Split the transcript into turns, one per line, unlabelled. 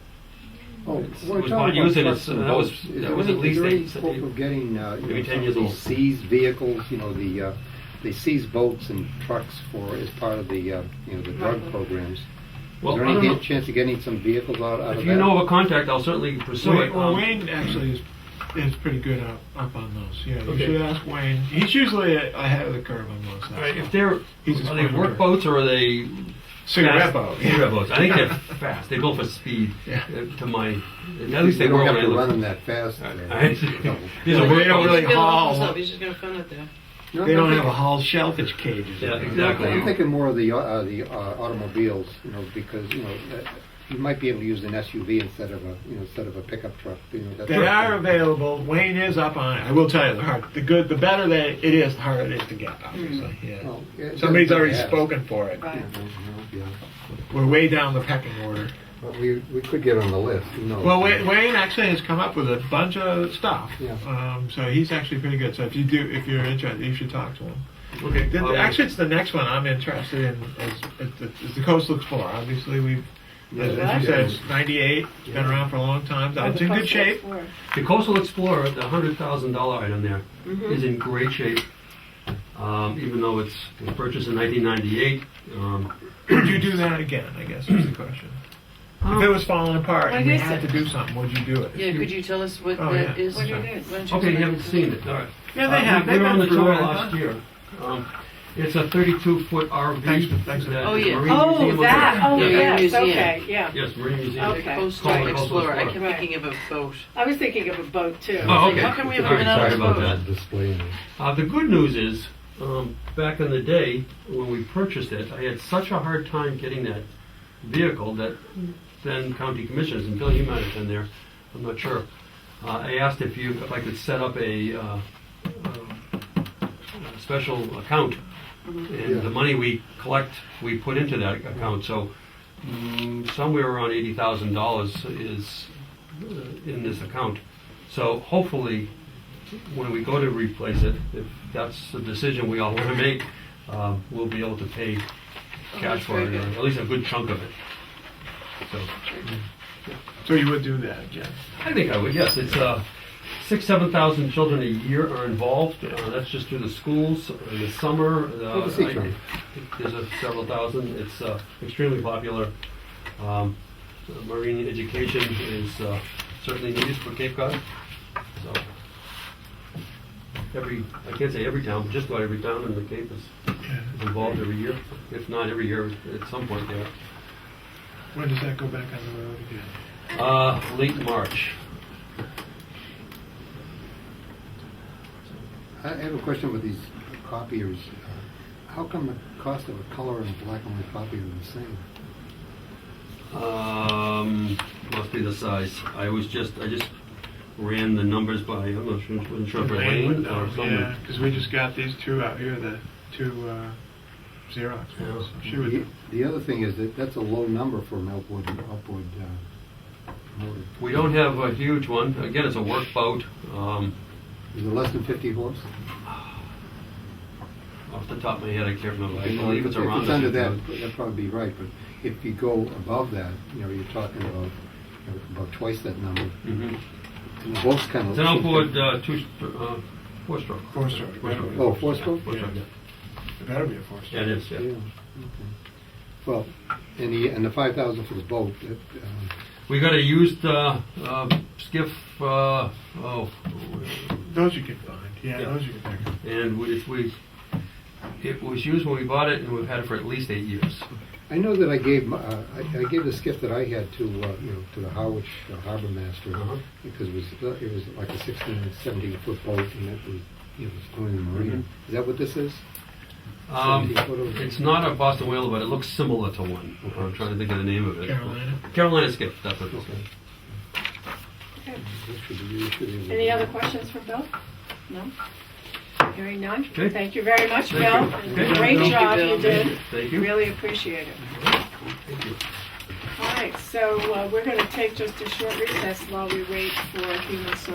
Oh,
It's-
we're
it was
talking
bought
about
used and
trucks
it's-
and
that was-
boats.
that
Is
was
there-
at
is
least
there any
eight-
hope of getting, uh, you
maybe
know,
10
some of
years
these
old.
seized vehicles, you know, the, uh, they seize boats and trucks for, as part of the, uh, you know, the drug
Right.
programs. Is
Well,
there
I don't
any
know.
chance of getting some vehicles out out of that?
If you know of a contact, I'll certainly pursue
Wayne,
it.
well,
Um,
Wayne actually is, is pretty good up, up on those. Yeah, you
Okay.
should ask Wayne. He's usually a- ahead of the curve on those.
all right, if they're
He's just
are they
one
work
hundred.
boats or are they
cigarette
fast-
boat.
Cigarette boats. I think they're fast. They're built for speed.
Yeah.
uh, To my at least they
You
were
don't have
when
to
I
run
looked.
them that fast.
I-
uh,
I-
you know.
These are
Well, they
work
don't
boats.
really-
He's gonna
Hall.
open this up, he's just gonna phone it there.
No,
They
I'm
don't have
thinking-
a whole shellfish cages.
Yeah,
in there.
exactly.
I'm thinking more of the, uh, uh, the uh, automobiles, you know, because, you know, uh, you might be able to use an SUV instead of a, you know, instead of a pickup truck, you know. that
They
sort of
are
thing.
available. Wayne is up on it. I will tell you, the hard, the good, the better that it is, the harder it is to get. Obviously, yeah.
Hmm. Well, it doesn't
Somebody's already
have-
spoken for it.
Right.
Yeah,
We're way down the pecking order.
but we, we could get on the list, you know.
Well, Wayne, Wayne actually has come up with a bunch of stuff.
Yeah.
Um, so he's actually pretty good. So if you do, if you're interested, you should talk to him.
Okay.
Then,
um,
actually, it's the next one I'm interested in. Is, is, the, is the Coastal Explorer? Obviously, we've, as, as you said, it's 98. It's been around for a long time.
Or
It's
the
in good
Coastal
shape.
Explorer.
The Coastal Explorer, the hundred thousand dollar item there, is
Mm-hmm.
Mhm.
in great shape. Um, even though it's it was purchased in 1998. Um,
Would you do that again? I guess is the question. If it was falling apart
Um, Like
and we
I
had
said-
to do something, would you do it?
Yeah, could you tell us what
Oh,
that
yeah.
is?
What do you do?
Why don't you
okay, you
explain
haven't
it to
seen
me?
it. All right.
Yeah,
Uh,
they have.
We
They've
were on
been
the
through
tour
it.
last year. Um, It's a 32-foot RV.
Thanks for- thanks for-
that
Oh,
the
yeah.
Marine Museum
Oh,
of-
that, oh,
Yeah.
yes,
Museum.
okay, yeah.
Yes, Marine Museum.
The
Okay.
Call it
Coastal
Coastal
Explorer. I
Explorer.
kept thinking of a boat.
I was thinking of a boat too.
Oh, okay.
How come we haven't
All right,
been on
Sorry
this
about
boat?
that. Uh, the good news is, um, back in the day when we purchased it, I had such a hard time getting that vehicle that then county commissioners and Bill, you might have been there. I'm not sure. Uh, I asked if you if I could set up a, uh, uh, a special account,
Mm-hmm.
and
Yeah.
the money we collect we put into that account. So mm, somewhere around eighty thousand dollars is uh, in this account. So hopefully, when we go to replace it, if that's the decision we all want to make, uh, we'll be able to pay cash
Oh, that's
for
very
it, or
good.
at least a good chunk of it. So.
So you would do that again.
I think I would, yes. It's uh, six, 7,000 children a year are involved. Uh, That's just through the schools, uh, the summer. uh,
Well, Oh, the sea
I-
trunk.
There's a several thousand. It's uh, extremely popular. Um, Marine education is uh, certainly needed for Cape Cod. So Every, I can't say every town, but just about every town in the Cape is is involved every year, if not every year at some point there.
When does that go back on the road again?
Uh, Late March.
I I have a question with these copiers. Uh, How come the cost of a color and black and white copy are the same?
Um, must be the size. I was just, I just ran the numbers by, I'm not sure, wasn't sure if Elaine or
Yeah,
someone.
because we just got these two out here, the two uh, Xerox ones.
Yeah.
She
The
would,
the other thing is that that's a low number for an outboard, outboard uh, motor.
We don't have a huge one. Again, it's a work boat. Um,
Is it less than 50 horse?
off the top of my head, I can't remember. I
You know,
believe it's around.
If it's under that, that'd probably be right, but if you go above that, you know, you're talking about, you know, about twice that number.
Mhm.
And the boat's kind of...
It's an outboard, uh, two, uh, four-stroke.
Four-stroke.
Four-stroke.
Oh, four-stroke?
Four-stroke, yeah.
it better be a four.
Yeah, it is,
Yeah,
yeah.
okay. Well, and the, and the 5,000 for the boat, that, um,
We got a used, uh, uh, skiff, uh, oh,
Those you can find. Yeah,
Yeah.
those you can pick. up.
and we, it's- we, it was used when we bought it, and we've had it for at least eight years.
I know that I gave, my- uh, I I gave the skiff that I had to, uh, you know, to the Howard Harbor Master,
Uh-huh.
because it was, uh, it was like a 16, 17-foot boat, and it was, you know, it was going in the marina. Is that what this is?
Um,
70 foot of-
it's not a Boston whaler, but it looks similar to one. I'm trying to think of the name of it.
Carolina.
Carolina skiff. That's what it is.
This should be- you should be-
Any other questions for Bill? No? Hearing none?
Okay.
Thank you very much, Bill.
Thank you. Okay.
Great
Thank you,
job
Bill.
you did.
Thank you.
Really appreciate it.
Thank you.
All right, so uh, we're going to take just a short recess while we wait for Human Services